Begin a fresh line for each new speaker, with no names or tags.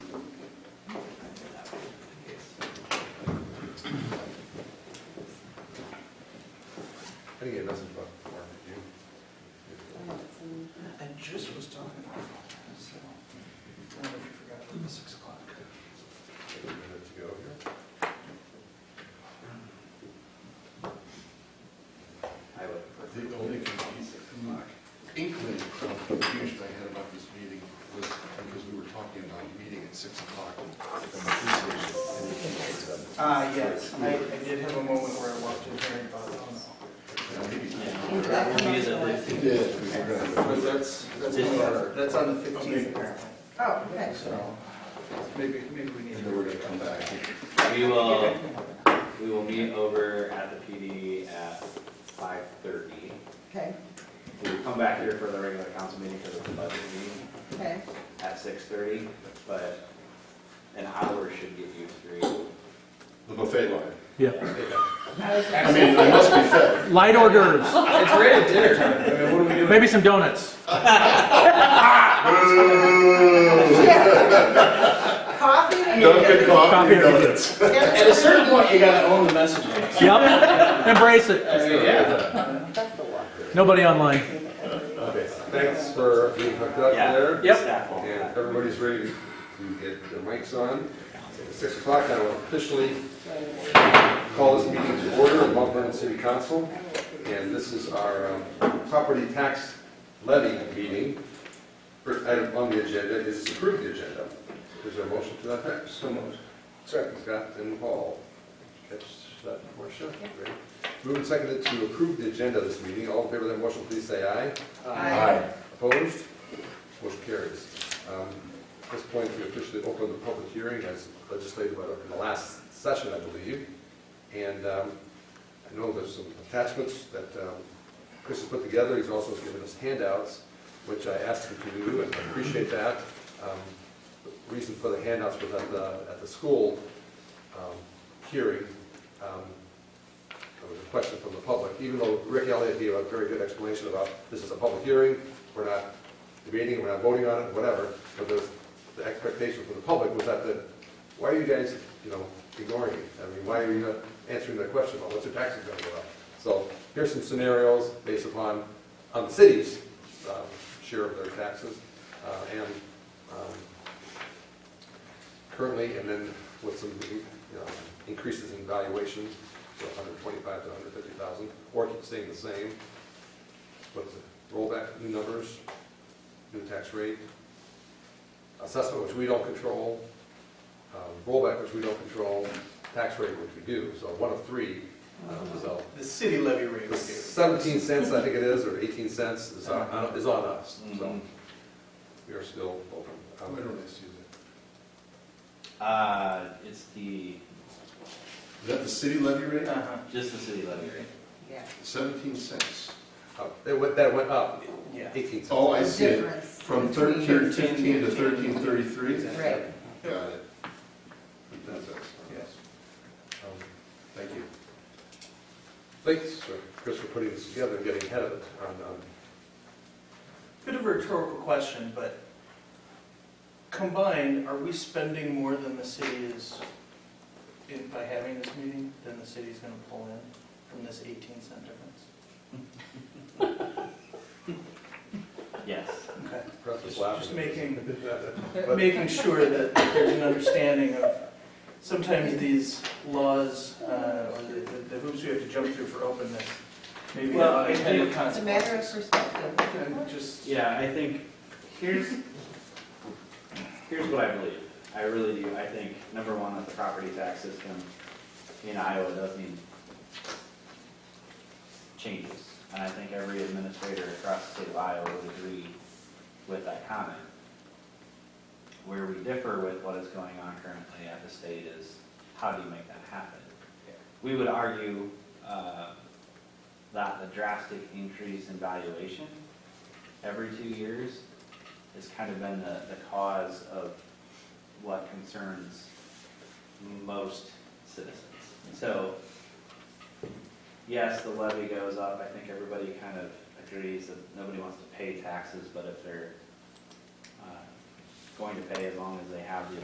me, it doesn't fuck the barbecue.
I just was talking about that, so, I don't know if you forgot about the six o'clock.
Wait a minute to go here. The only confusion, inkling of confusion I had about this meeting was because we were talking about a meeting at six o'clock from the police station. and the chief showed up.
Uh, yes, I, I did have a moment where I walked in here and thought, oh
And maybe-
Did that come up or-
It did, we were gonna-
no. But that's, that's on the, that's on the fifteenth apparently,
Oh, okay.
so, maybe, maybe we need
And
to.
then we're gonna come back.
We will, we will meet over at the PD at five thirty.
Okay,
We'll come back here for the regular council meeting because it's a budget meeting
okay,
at six thirty, but an hour should get you through.
The buffet line.
Yeah,
I mean, I must be fed.
light hors d'oeuvres,
It's right at dinner time. I mean, what are we doing?
maybe some donuts.
coffee and
Dunkin'
Coffee
coffee
or
donuts.
At a certain point, you gotta own the messaging.
Yep, embrace it.
I mean, yeah.
that's the one.
Nobody online.
Okay, thanks for being hooked up
Yeah.
there.
Yep.
Staff all
And
that.
everybody's ready to get their mics on. At six o'clock, I will officially call this meeting to order at Mount Vernon City Council. And this is our um, property tax levy meeting. First item on the agenda is to approve the agenda. Is there a motion to that effect? So moved. Second, Scott and Paul. Catch that, Marcia? Great. Moved and seconded to approve the agenda of this meeting. All in favor of that motion, please say aye.
Aye.
Opposed? Motion carries. Um, At this point, we officially open the public hearing as legislated by the- in the last session, I believe. And um, I know there's some attachments that um, Chris has put together. He's also given us handouts, which I asked him to do, and I appreciate that. Um, The Reason for the handouts was at the, at the school um, hearing. um, there was a question from the public, even though Rick Elliott gave a very good explanation about this is a public hearing, we're not debating, we're not voting on it, whatever, but the, the expectation from the public was that, the why are you guys, you know, ignoring it? I mean, why are you not answering the question about what's your taxes gonna go up? So here's some scenarios based upon, on the city's, um, share of their taxes, uh, and, um, currently, and then with some, you know, increases in valuation, so hundred twenty-five to hundred fifty thousand, or keep staying the same, with the rollback, new numbers, new tax rate, assessment, which we don't control, um, rollback, which we don't control, tax rate, which we do, so one of three, um,
Uh-huh.
so.
The city levy rate
the
review.
Seventeen cents, I think it is, or eighteen cents is on, is on us, so
Mhm.
we are still open. Um,
Uh, it's the,
Is that the city levy rate?
Uh-huh,
just the city levy rate.
Yeah,
Seventeen cents.
uh, It went, that went up
yeah.
eighteen cents.
Oh, I
the
see it.
difference.
From
Between
thirteen fifteen to
13.15.
thirteen thirty-three? Got
Right,
it. That's it.
Yes.
Um,
Thank you.
Thanks, sir, Chris, for putting this together and getting ahead of it on, on,
Bit of a rhetorical question, but combined, are we spending more than the city is, in- by having this meeting, than the city's gonna pull in from this eighteen cent difference?
Yes.
Okay.
Chris was
Just
laughing.
just making,
But-
making sure that there's an understanding of, sometimes these laws, uh, or the- the the hoops we have to jump through for openness, maybe
Well,
have
I
unintended
think-
it's a matter of
consequences.
perspective.
And just,
Yeah, I think, here's, here's what I believe. I really do. I think, number one, that the property tax system in Iowa does need changes. And I think every administrator across the state of Iowa would agree with that comment. Where we differ with what is going on currently at the state is, how do you make that happen? We would argue, uh, that the drastic increase in valuation every two years has kind of been the, the cause of what concerns most citizens. So, yes, the levy goes up, I think everybody kind of agrees that nobody wants to pay taxes, but if they're, uh, going to pay as long as they have the